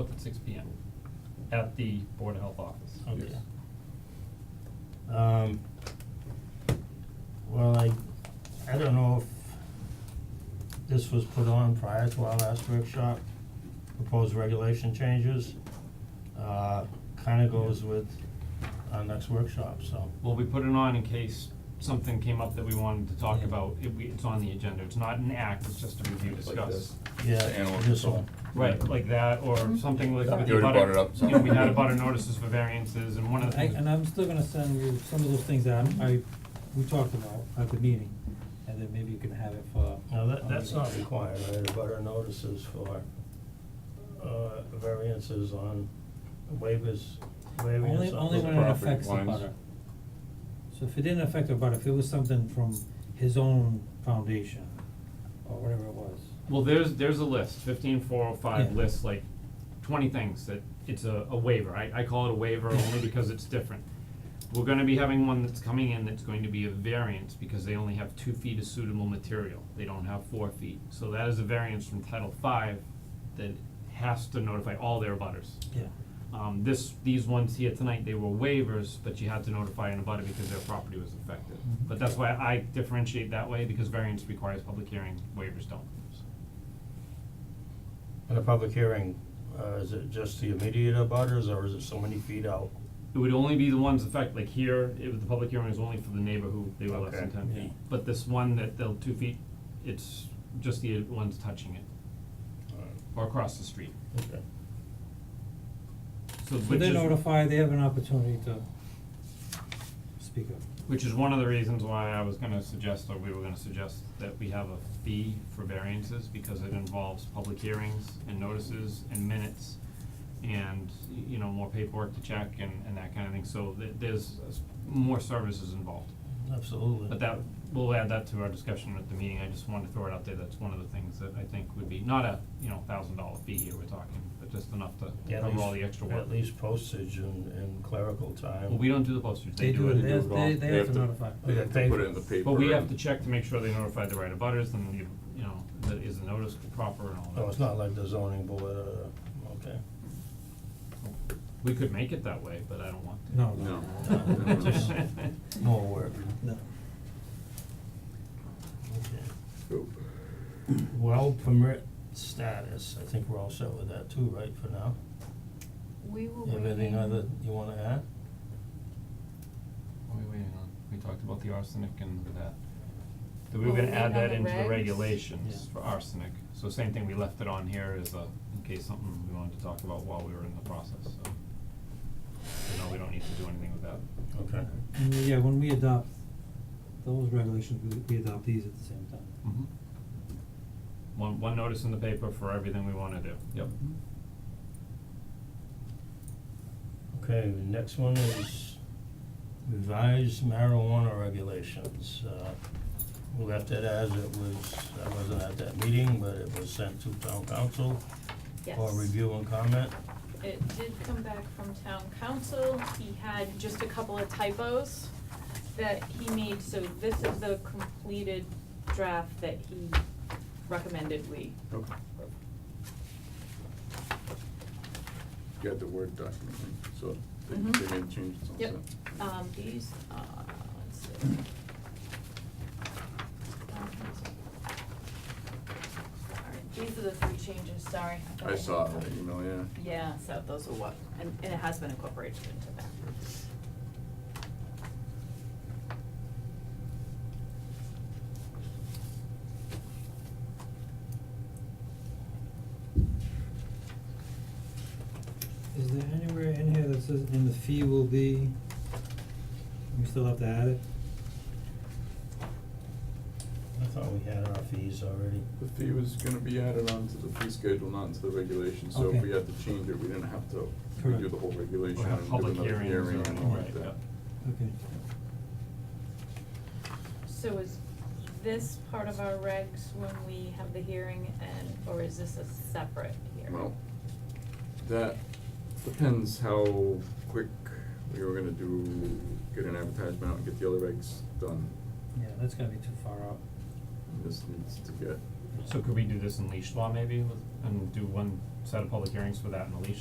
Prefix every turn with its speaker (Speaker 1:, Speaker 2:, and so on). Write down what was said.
Speaker 1: both at six P M. At the Board of Health office.
Speaker 2: Okay.
Speaker 1: Yes.
Speaker 2: Um, well, I, I don't know if this was put on prior to our last workshop, proposed regulation changes. Uh, kinda goes with our next workshop, so.
Speaker 1: Well, we put it on in case something came up that we wanted to talk
Speaker 2: Yeah.
Speaker 1: about, it, we, it's on the agenda, it's not an act, it's just a review discuss.
Speaker 3: Like this.
Speaker 2: Yeah,
Speaker 3: The animal
Speaker 2: this
Speaker 3: control.
Speaker 2: one.
Speaker 1: Right, like that, or
Speaker 4: Mm-hmm.
Speaker 1: something like with
Speaker 3: You
Speaker 1: the
Speaker 3: already brought it
Speaker 1: abutter,
Speaker 3: up, so-
Speaker 1: you know, we had abutter notices for variances, and one of the
Speaker 4: I,
Speaker 1: things.
Speaker 4: and I'm still gonna send you some of those things that I'm, I, we talked about at the meeting, and then maybe you can have it for.
Speaker 2: Now, that,
Speaker 4: our
Speaker 2: that's
Speaker 4: meeting.
Speaker 2: not required, right, about our notices for, uh, variances on waivers,
Speaker 4: Only,
Speaker 2: waivers on.
Speaker 4: only when it
Speaker 3: property
Speaker 4: affects the
Speaker 3: lines.
Speaker 4: butter. So if it didn't affect the butter, if it was something from his own foundation, or whatever it was.
Speaker 1: Well, there's, there's a list, fifteen four oh five
Speaker 4: Yeah.
Speaker 1: lists like twenty things that, it's a, a waiver, I, I call it a waiver only because it's different. We're gonna be having one that's coming in that's going to be a variance, because they only have two feet of suitable material, they don't have four feet. So that is a variance from Title Five that has to notify all their abutters.
Speaker 4: Yeah.
Speaker 1: Um, this, these ones here tonight, they were waivers, but you had to notify an abutter because their property was affected.
Speaker 4: Mhm.
Speaker 1: But that's why I differentiate that way, because variance requires public hearing, waivers don't, so.
Speaker 2: At a public hearing, uh, is it just the immediate abutters, or is it so many feet out?
Speaker 1: It would only be the ones affect, like here, it was, the public hearing was only for the neighbor who, they were less than
Speaker 2: Okay.
Speaker 1: ten
Speaker 4: Yeah.
Speaker 1: feet. But this one that they'll two feet, it's just the ones touching it, or across the street.
Speaker 2: Okay.
Speaker 1: So
Speaker 4: So
Speaker 1: which
Speaker 4: they
Speaker 1: is,
Speaker 4: notify, they have an opportunity to speak up.
Speaker 1: which is one of the reasons why I was gonna suggest, or we were gonna suggest, that we have a fee for variances, because it involves public hearings and notices and minutes and, y- you know, more paperwork to check and, and that kind of thing, so th- there's uh, s- more services involved.
Speaker 2: Absolutely.
Speaker 1: But that, we'll add that to our discussion at the meeting, I just wanted to throw it out there, that's one of the things that I think would be, not a, you know, thousand dollar fee here we're talking, but just enough to
Speaker 2: Yeah, at
Speaker 1: cover all the
Speaker 2: least-
Speaker 1: extra work.
Speaker 2: At least postage and, and clerical time.
Speaker 1: Well, we don't do the postage, they do it.
Speaker 3: they do it all. They
Speaker 4: They, they
Speaker 3: have
Speaker 4: have to
Speaker 3: to-
Speaker 4: notify.
Speaker 2: Okay,
Speaker 3: They have to
Speaker 2: thank-
Speaker 3: put it in the paper.
Speaker 1: But we have
Speaker 3: and-
Speaker 1: to check to make sure they notify the right of butters, and you, you know, that is the notice proper and all that.
Speaker 2: No, it's not like the zoning board, uh, okay.
Speaker 1: We could make it that way, but I don't want to.
Speaker 4: No,
Speaker 3: No.
Speaker 4: no.
Speaker 2: No, just- More work.
Speaker 4: No.
Speaker 2: Okay.
Speaker 3: Oh.
Speaker 2: Well permit status, I think we're all set with that too, right, for now?
Speaker 5: We were
Speaker 2: You have anything
Speaker 5: waiting.
Speaker 2: other you wanna add?
Speaker 1: What are we waiting on? We talked about the arsenic and that. That we were
Speaker 5: Well,
Speaker 1: gonna
Speaker 5: we
Speaker 1: add
Speaker 5: have
Speaker 1: that
Speaker 5: the
Speaker 1: into the
Speaker 5: regs.
Speaker 1: regulations
Speaker 4: Yeah.
Speaker 1: for arsenic, so same thing, we left it on here as a, in case something we wanted to talk about while we were in the process, so. So no, we don't need to do anything with that.
Speaker 2: Okay.
Speaker 4: And uh, yeah, when we adopt those regulations, we, we adopt these at the same time.
Speaker 1: Mm-hmm. One, one notice in the paper for everything we wanna do, yep.
Speaker 2: Okay, the next one is revised marijuana regulations. Uh, we left it as it was, I wasn't at that meeting, but it was sent to town council for
Speaker 5: Yes.
Speaker 2: review and comment.
Speaker 5: It did come back from town council, he had just a couple of typos that he made, so this is the completed draft that he recommended we.
Speaker 3: Okay. You got the Word document, right? so they,
Speaker 5: Mhm.
Speaker 3: they made changes on that.
Speaker 5: Yep, um, these, uh, let's see. Alright, these are the three changes, sorry. thought
Speaker 3: I
Speaker 5: had
Speaker 3: saw it,
Speaker 5: them.
Speaker 3: on the email, yeah.
Speaker 5: Yeah, so those are what, and, and it has been incorporated into that.
Speaker 4: Is there anywhere in here that says, and the fee will be, we still have to add it?
Speaker 2: I thought we had our fees already.
Speaker 3: The fee was gonna be added on to the fee schedule, not into the regulation, so
Speaker 4: Okay.
Speaker 3: if we had to change it, we didn't have to
Speaker 4: Correct.
Speaker 3: redo the whole regulation
Speaker 1: Or have
Speaker 3: and do
Speaker 1: public
Speaker 3: another
Speaker 1: hearings or
Speaker 3: hearing and
Speaker 1: anything,
Speaker 3: all like
Speaker 1: right,
Speaker 3: that.
Speaker 1: yep.
Speaker 4: Okay.
Speaker 5: So is this part of our regs when we have the hearing and, or is this a separate hearing?
Speaker 3: Well, that depends how quick we were gonna do, get an advertisement out and get the other regs done.
Speaker 4: Yeah, that's gonna be too far out.
Speaker 3: This needs to get
Speaker 1: So could we do this in leash law maybe with, and do one set of public hearings for that in the leash